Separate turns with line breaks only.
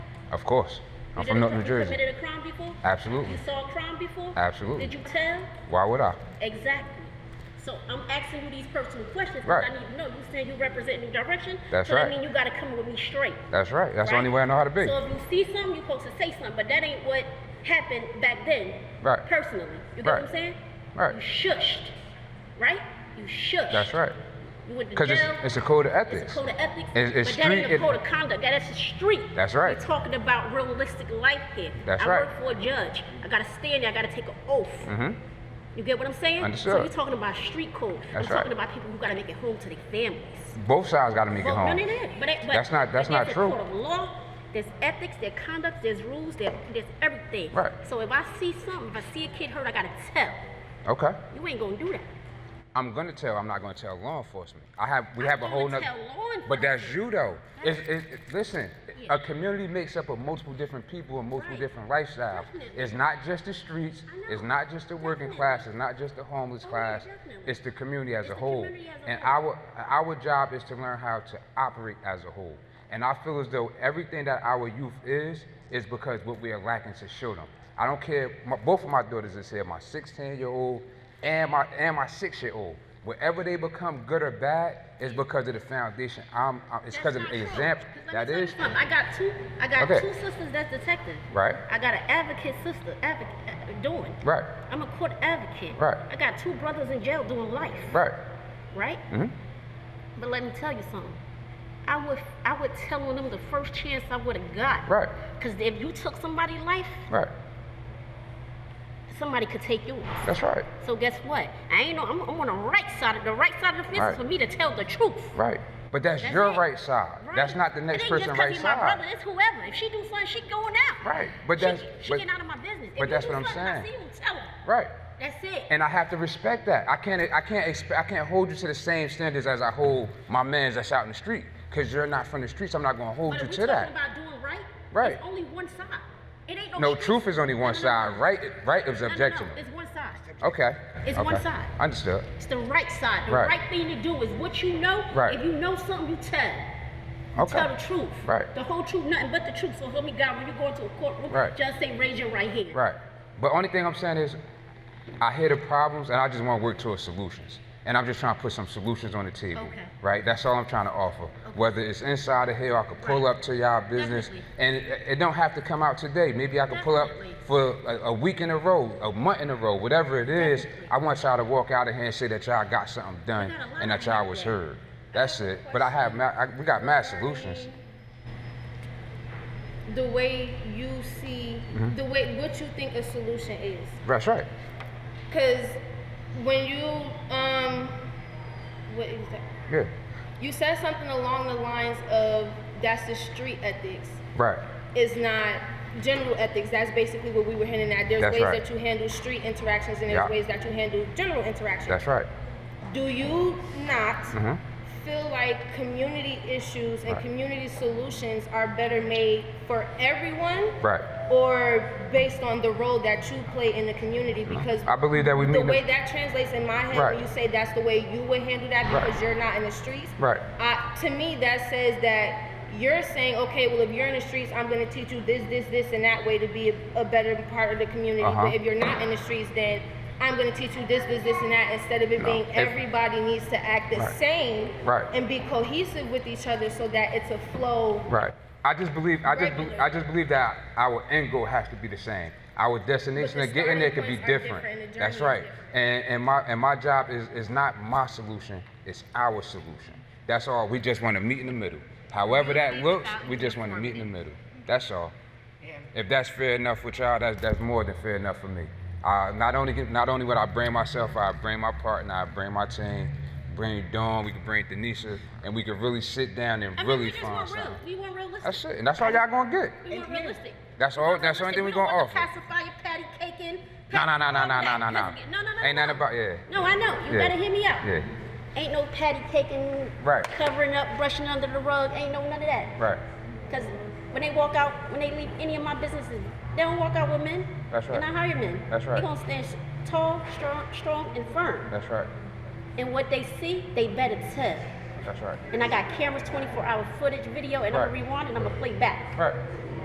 Of course. I'm
You
from
did a
North
cr-
New Jersey.
Committed a crime before?
Absolutely.
You saw a crime before?
Absolutely.
Did you tell?
Why would I?
Exactly. So I'm asking you these personal questions because
Right.
I need to know. You saying you represent New Direction?
That's
so
right.
that mean you got to come with me straight.
That's right. That's the
right?
only way I know how to be.
So if you see something, you're supposed to say something, but that ain't what happened back then.
Right.
Personally. You get what
Right.
I'm saying?
Right.
You shushed. Right? You shushed.
That's right.
You went to
Because it's,
jail.
it's a code of
It's
ethics.
a code of ethics.
It's- it's
but that ain't
street-
a code of conduct. That- That's the street.
That's right.
We're talking about realistic life here.
That's
I
right.
I work for a judge. I gotta stand there. I gotta take an oath.
Mhm.
You get what I'm saying?
Understood.
So we're talking about street code.
That's
I'm
right.
talking about people who gotta make it home to their families.
Both sides got to make it
Well, no,
home.
no, no. But, it- but
That's not- that's
but there's
not
a
true.
Code of law. There's ethics. There's conduct. There's rules. There's, there's everything.
Right.
So if I see something, if I see a kid hurt, I gotta tell.
Okay.
You ain't gonna do that.
I'm gonna tell. I'm not gonna tell law enforcement. I have. We have a
gonna
whole nother.
tell law
But that's you though. It's, it's, it- listen,
Yeah.
a community makes up of multiple different people and multiple
Right.
different lifestyles.
Definitely.
It's not just the streets.
I know.
It's not just the working
Definitely.
class. It's not just the homeless
Oh, yeah,
class.
definitely.
It's the community as
It's
a
the
whole.
community as a
And
whole.
our our job is to learn how to operate as a whole. And I feel as though everything that our youth is is because what we are lacking to show them. I don't care. My, both of my daughters is here. My 16 year old and my and my six year old. Whatever they become, good or bad, is because of the foundation. I'm. i it's because of
That's
the
not true.
example.
'Cause let
That
me tell you
is.
something. I got two. I got
Okay.
two sisters that's detective.
Right.
I got an advocate sister advocate uh, doing.
Right.
I'm a court advocate.
Right.
I got two brothers in jail doing life.
Right.
Right.
hmm
But let me tell you something. I would I would tell on them the first chance I would have got.
Right.
Because if you took somebody's life,
Right.
somebody could take yours.
That's right.
So guess what? I ain't know. I'm, I'm on the right side of the right side of the fence
Right.
is for me to tell the truth.
Right. But that's,
That's
your
it.
right side. That's not the
It
next
ain't
person
just 'cause
right
he
side.
My brother, it's whoever. If she do something, she going out.
Right, but
she,
that's-
she
but-
getting out of my business. If
but
you
that's
do
what I'm
something, I
saying.
see you, tell her.
Right.
That's it.
And I have to respect that. I can't. I can't. Expe- I can't hold you to the same standards as I hold my man's that's out in the street. Cause you're not from the streets. I'm not gonna hold
but
you
if we
to
talking
that.
about doing right,
Right.
It's only one side. It ain't no.
no,
two-
truth is only one
No, no, no,
side. Right. Right is
No, no,
objective.
No, it's one side.
Okay.
It's
okay.
one side.
Understood.
It's the right side. The
Right.
right, thing to do is what you know.
Right.
If you know something, you tell. You
Okay.
Tell the truth.
Right.
The whole truth, nothing but the truth. So help me God, when you go into a courtroom,
Right.
just say raise your right hand.
Right. But only thing I'm saying is, I hear the problems and I just want to work towards solutions. And I'm just trying to put some solutions on the table.
Okay.
Right? That's all I'm trying to offer. Whether it's inside of here, I could pull
Right.
up to y'all business.
Definitely.
And it, it don't have to come out today. Maybe I could
Definitely.
pull up for a, a week in a row, a month in a row, whatever it is.
Definitely.
I want y'all to walk out of here and say that y'all got something done
We got a lot
and that
of
y'all
that
was
there.
heard. That's it. But I have, ma- I, we got mad solutions.
the way you see
Mm-hmm.
the way what you think a solution is
That's right.
because when you um what is that
Yeah.
you said something along the lines of that's the street ethics
Right.
it's not general ethics that's basically what we were hinting at there's
That's
ways
right.
that you handle street interactions and
Yeah.
there's ways that you handle general interactions
That's right.
do you not
Mhm.
feel like community issues and
Right.
community solutions are better made for everyone
Right.
or based on the role that you play in the community because
Mm-hmm. I believe that we
the
meet.
way that translates in my head
Right.
when you say that's the way you would handle that
Right.
because you're not in the streets
Right.
uh, to me that says that you're saying okay well if you're in the streets i'm going to teach you this this this and that way to be a, a better part of the community
Uh-huh.
but if you're not in the streets then i'm going to teach you this this this and that instead of it
No.
being
If-
everybody needs to act the
Right.
same
Right.
and be cohesive with each other so that it's a flow
Right. I just believe I just be,
Regular.
I just believe that our end goal has to be the same. Our destination
But the
of getting there could be
starting points are
different.
different and the
That's
journey
right.
is different.
And and my and my job is is not my solution. It's our solution. That's all. We just want to meet in the middle. However that looks, we just want to meet in the middle. That's all. If that's fair enough with y'all, that's that's more than fair enough for me. Uh, not only get- not only would I bring myself, I bring my partner, I bring my team, bring Dawn, we could bring Denisha, and we could really sit down and
I mean,
really
we just
find
want
something.
real. We want realistic.
That's it, and that's all y'all gonna get.
We want realistic.
That's
We
all-
want
that's the only
realistic.
thing we
We don't
gonna
want the
offer.
Pacifier, patty cake in.
Nah, nah, nah, nah,
all
nah,
that.
nah, nah, nah.
Let's get- No, no, no.
Ain't
no.
nothing about- yeah.
No, I know. You
Yeah.
better hear me out.
Yeah.
Ain't no patty caking,
Right.
covering up, brushing under the rug. Ain't no none of that.
Right.
Because when they walk out, when they leave any of my businesses, they don't walk out with men.
That's right.
And I hire men.
That's right.
They're going to stand s- tall, strong, strong, and firm.
That's right.
And what they see, they better tell.
That's right.
And I got cameras, 24 hour footage, video, and I'm
Right.
going to rewind and I'm going to play back.
Right.